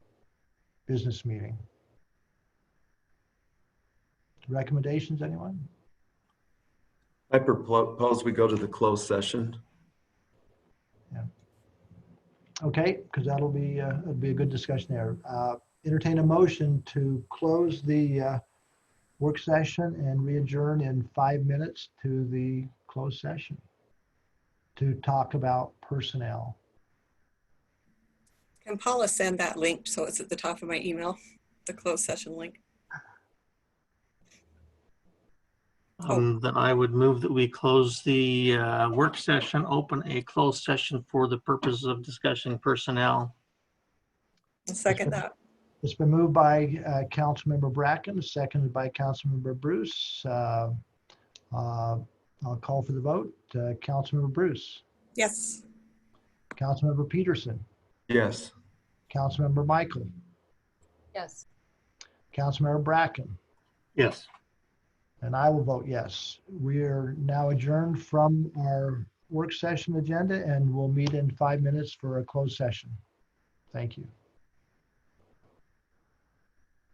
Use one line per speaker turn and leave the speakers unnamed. business meeting. Recommendations, anyone?
I propose we go to the closed session.
Okay, because that'll be, uh, it'll be a good discussion there. Uh, Entertain a motion to close the uh, work session and re-adjourn in five minutes to the closed session to talk about personnel.
Can Paula send that link so it's at the top of my email, the closed session link? Oh.
Um, Then I would move that we close the uh, work session, open a closed session for the purposes of discussing personnel.
I'll Second that.
It's been moved by uh, Councilmember Bracken, seconded by Councilmember Bruce. Uh, uh, I'll call for the vote. Uh, Councilmember Bruce,
Yes.
Councilmember Peterson,
Yes.
Councilmember Michael,
Yes.
Councilmember Bracken,
Yes.
and I will vote yes. We are now adjourned from our work session agenda and we'll meet in five minutes for a closed session. Thank you.